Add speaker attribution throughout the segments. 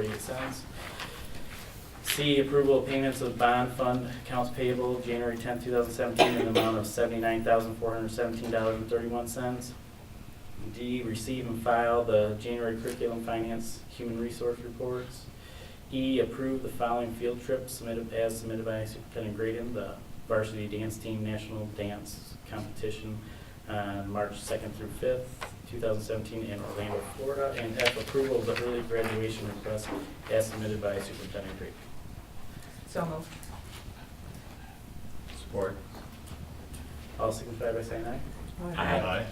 Speaker 1: Forty-eight cents. C, approval of payments of bond fund accounts payable January tenth, two thousand seventeen, in the amount of seventy-nine thousand, four hundred seventeen dollars and thirty-one cents. D, receive and file the January curriculum finance human resource reports. E, approve the following field trips submitted, as submitted by Superintendent Graydon, the varsity dance team national dance competition on March 2nd through 5th, 2017, in Orlando, Florida, and F, approval of the early graduation request as submitted by Superintendent Green.
Speaker 2: So moved.
Speaker 3: Support.
Speaker 1: All signify by saying aye.
Speaker 3: Aye.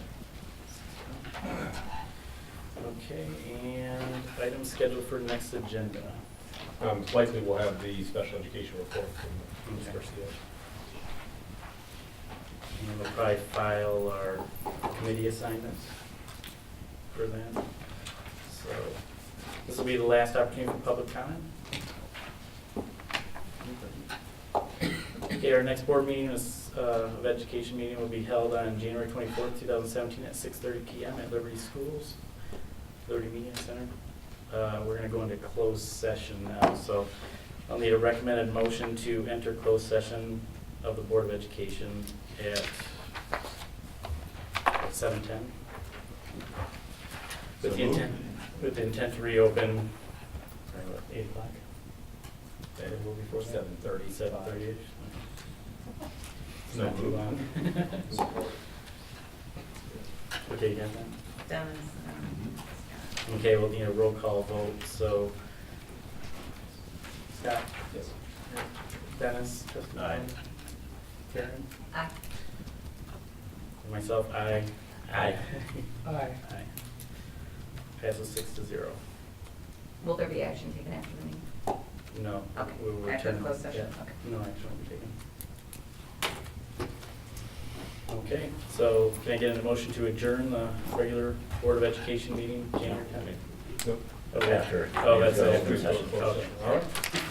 Speaker 1: Okay, and items scheduled for next agenda.
Speaker 3: Um, Likely we'll have the special education report from Ms. Garcia.
Speaker 1: And we'll probably file our committee assignments for that. So this will be the last opportunity for public comment. Okay, our next board meeting is, uh, of education meeting will be held on January twenty-fourth, two thousand seventeen, at six thirty PM at Liberty Schools, Liberty Media Center. Uh, We're gonna go into closed session now, so I'll need a recommended motion to enter closed session of the Board of Education at seven ten. With the intent, with the intent to reopen at eight o'clock. That will be for seven thirty, seven thirty-ish. It's not too long. Okay, you got that?
Speaker 2: Dennis.
Speaker 1: Okay, we'll need a roll call vote, so. Scott?
Speaker 3: Yes.
Speaker 1: Dennis? Justin?
Speaker 3: Aye.
Speaker 1: Karen?
Speaker 2: Aye.
Speaker 1: And Myself, aye.
Speaker 3: Aye.
Speaker 2: Aye.
Speaker 1: Aye. Passes six to zero.
Speaker 2: Will there be action taken after the meeting?
Speaker 1: No.
Speaker 2: Okay,
Speaker 1: we will
Speaker 2: after the
Speaker 1: return-
Speaker 2: closed session,
Speaker 1: yeah,
Speaker 2: okay.
Speaker 1: No action will be taken. Okay, so can I get a motion to adjourn the regular Board of Education meeting, January 10th?
Speaker 3: Nope.
Speaker 1: Oh, Okay. Oh, that's after. Okay. All right.